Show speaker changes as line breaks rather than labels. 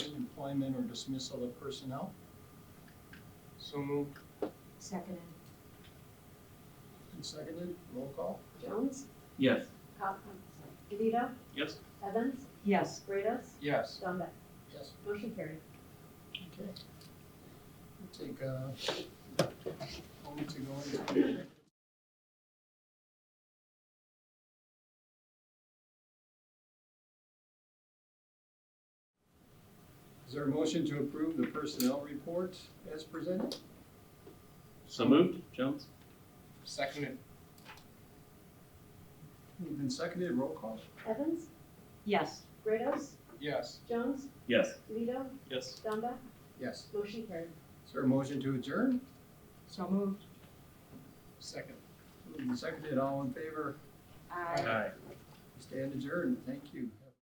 employment or dismissal of personnel.
So moved.
Seconded.
And seconded, roll call.
Jones,
Yes.
Cop, sorry, DeVito,
Yes.
Evans,
Yes.
Grados,
Yes.
Dunbar.
Yes.
Motion carried.
Okay. We'll Take a moment to go into executive Is there a motion to approve the personnel report as presented?
So moved, Jones?
Seconded.
Moved and seconded, roll call.
Evans,
Yes.
Grados,
Yes.
Jones,
Yes.
DeVito,
Yes.
Dunbar.
Yes.
Motion carried.
Is there a motion to adjourn?
So moved.
Second.
Moved and seconded, all in favor,
Aye.
stand adjourned, thank you.